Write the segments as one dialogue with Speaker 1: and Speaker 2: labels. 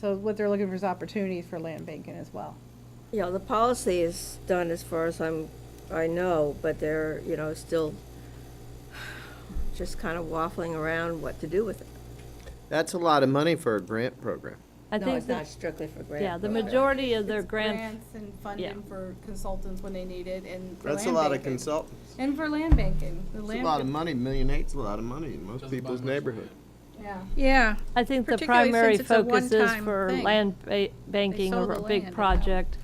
Speaker 1: So what they're looking for is opportunities for land banking as well.
Speaker 2: You know, the policy is done as far as I'm, I know, but they're, you know, still just kind of waffling around what to do with it.
Speaker 3: That's a lot of money for a grant program.
Speaker 4: I
Speaker 2: No,
Speaker 4: think
Speaker 2: it's not
Speaker 4: that,
Speaker 2: strictly for grant.
Speaker 4: yeah, the
Speaker 2: program.
Speaker 4: majority of their
Speaker 5: It's
Speaker 4: grant,
Speaker 5: Grants and funding for consultants when they need it and for
Speaker 3: That's a
Speaker 5: land
Speaker 3: lot of
Speaker 5: banking.
Speaker 3: consultants.
Speaker 5: And for land banking, the
Speaker 3: It's a
Speaker 5: land.
Speaker 3: lot of money. Million eight's a lot of money in most people's neighborhood.
Speaker 5: Yeah,
Speaker 6: Yeah,
Speaker 4: I think the
Speaker 6: particularly
Speaker 4: primary
Speaker 6: since it's a
Speaker 4: focus is
Speaker 6: one-time
Speaker 4: for
Speaker 6: thing.
Speaker 4: land ba- banking
Speaker 5: sold
Speaker 4: or a
Speaker 5: the land
Speaker 4: big
Speaker 5: and
Speaker 4: project.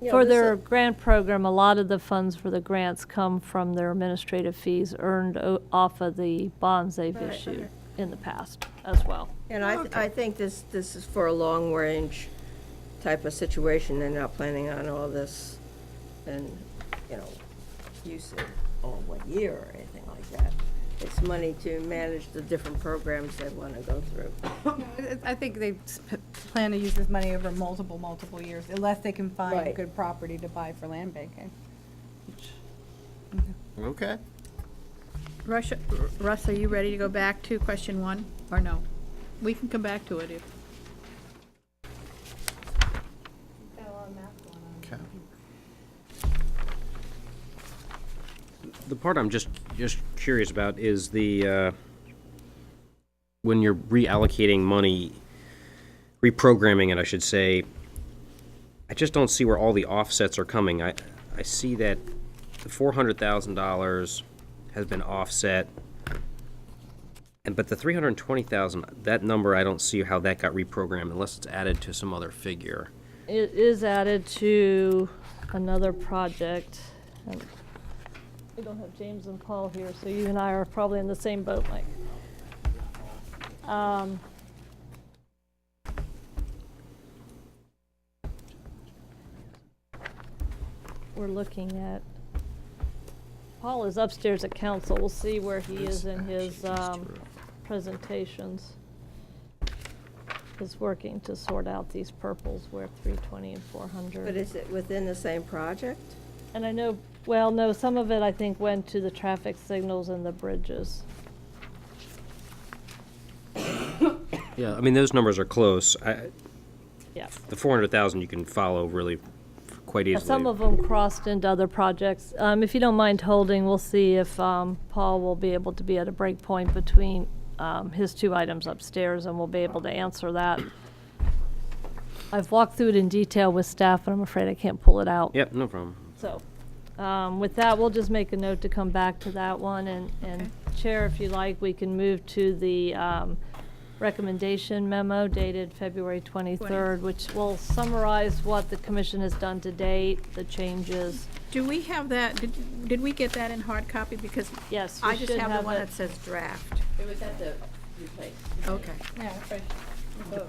Speaker 2: Yeah,
Speaker 4: For
Speaker 2: this
Speaker 4: their
Speaker 2: is-
Speaker 4: grant program, a lot of the funds for the grants come from their administrative fees earned o- off of the bonds they've issued in the past as well.
Speaker 2: And I, th- I think this, this is for a long-range type of situation, they're not planning on all this and, you know, use it all one year or anything like that. It's money to manage the different programs they want to go through.
Speaker 1: I- I think they s- p- plan to use this money over multiple, multiple years, unless they can find
Speaker 2: Right.
Speaker 1: good property to buy for land banking.
Speaker 3: Okay.
Speaker 6: Russia, Russ, are you ready to go back to question one, or no? We can come back to it if.
Speaker 3: Okay.
Speaker 7: The part I'm just, just curious about is the, uh, when you're reallocating money, reprogramming it, I should say, I just don't see where all the offsets are coming. I, I see that the four hundred thousand dollars has been offset. And, but the three hundred and twenty thousand, that number, I don't see how that got reprogrammed unless it's added to some other figure.
Speaker 4: It is added to another project. and We don't have James and Paul here, so you and I are probably in the same boat, Mike. Um, We're looking at, Paul is upstairs at council. We'll see where he is in his um, presentations is working to sort out these purples where 320 and 400.
Speaker 2: But is it within the same project?
Speaker 4: And I know, well, no, some of it I think went to the traffic signals and the bridges.
Speaker 7: Yeah, I mean, those numbers are close. I,
Speaker 4: Yeah.
Speaker 7: the four hundred thousand you can follow really quite
Speaker 4: Uh,
Speaker 7: easily.
Speaker 4: Some of them crossed into other projects. Um, If you don't mind holding, we'll see if um, Paul will be able to be at a break point between um, his two items upstairs, and we'll be able to answer that. I've walked through it in detail with staff, and I'm afraid I can't pull it out.
Speaker 7: Yep, no problem.
Speaker 4: So, um, with that, we'll just make a note to come back to that one, and, and Chair, if you like, we can move to the, um, recommendation memo dated February twenty-third, which will summarize what the commission has done to date, the changes.
Speaker 6: Do we have that, did, did we get that in hard copy? Because
Speaker 4: Yes,
Speaker 6: I
Speaker 4: we
Speaker 6: just
Speaker 4: should
Speaker 6: have the
Speaker 4: have
Speaker 6: one
Speaker 4: it.
Speaker 6: that says draft.
Speaker 2: It was at the new place.
Speaker 6: Okay.
Speaker 5: yeah, it's right. The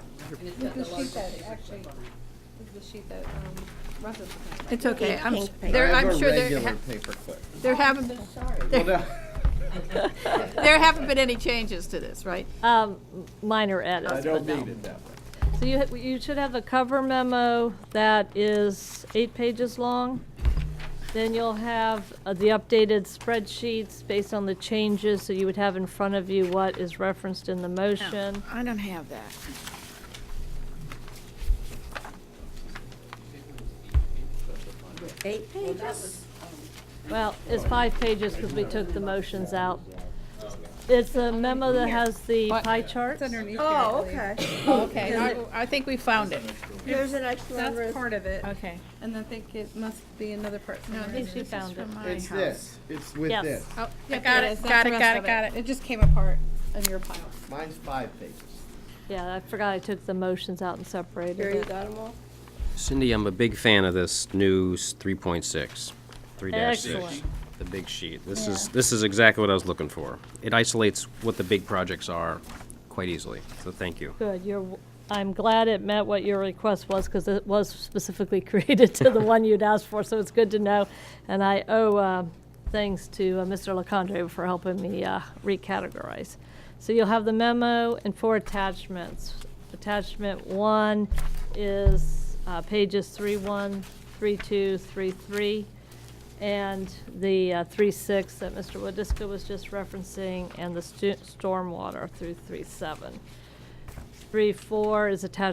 Speaker 5: sheet that, actually, the sheet that, um, Russ is looking at.
Speaker 6: It's okay, I'm, s-
Speaker 2: Pink paper.
Speaker 6: there, I'm sure there,
Speaker 3: regular
Speaker 6: ha-
Speaker 3: paperclip.
Speaker 6: there haven't, there haven't been any changes to this, right?
Speaker 4: Um, minor edits.
Speaker 3: I
Speaker 4: but
Speaker 3: don't
Speaker 4: no.
Speaker 3: need it that way.
Speaker 4: So you, ha- you should have a cover memo that is eight pages long. Then you'll have uh, the updated spreadsheets based on the changes, so you would have in front of you what is referenced in the motion.
Speaker 6: I don't have that.
Speaker 2: Eight pages?
Speaker 4: Well, it's five pages because we took the motions out. It's a memo that has the pie charts.
Speaker 2: Oh, okay.
Speaker 6: Okay, I, I think we found it.
Speaker 2: There's an extra number.
Speaker 5: That's part of it,
Speaker 6: Okay.
Speaker 5: and I think it must be another part.
Speaker 6: No,
Speaker 5: somewhere.
Speaker 4: think she
Speaker 6: this is
Speaker 4: found it.
Speaker 6: from my
Speaker 3: It's
Speaker 6: house.
Speaker 3: this. It's with
Speaker 4: Yes.
Speaker 3: this.
Speaker 6: Oh, I
Speaker 5: Yep,
Speaker 6: got
Speaker 5: there
Speaker 6: it,
Speaker 5: is. That's
Speaker 6: got
Speaker 5: the
Speaker 6: it,
Speaker 5: rest
Speaker 6: got
Speaker 5: of
Speaker 6: it, got it.
Speaker 5: It just came apart in your pile.
Speaker 3: Mine's five pages.
Speaker 4: Yeah, I forgot I took the motions out and separated
Speaker 2: Here, you
Speaker 4: it.
Speaker 2: got 'em all?
Speaker 7: Cindy, I'm a big fan of this new s- 3.6, 3-6.
Speaker 4: Excellent.
Speaker 7: The big sheet. This is, this is exactly what I was looking for. It isolates what the big projects are quite easily, so thank you.
Speaker 4: Good, you're, w- I'm glad it met what your request was, because it was specifically created to the one you'd asked for, so it's good to know. And I owe uh, thanks to uh, Mr. LaCondre for helping me uh, recategorize. So you'll have the memo and four attachments. Attachment one is uh, pages three one, three two, three three, and the uh, three six that Mr. Wadiska was just referencing, and the stu- stormwater through three seven. Three, four is attached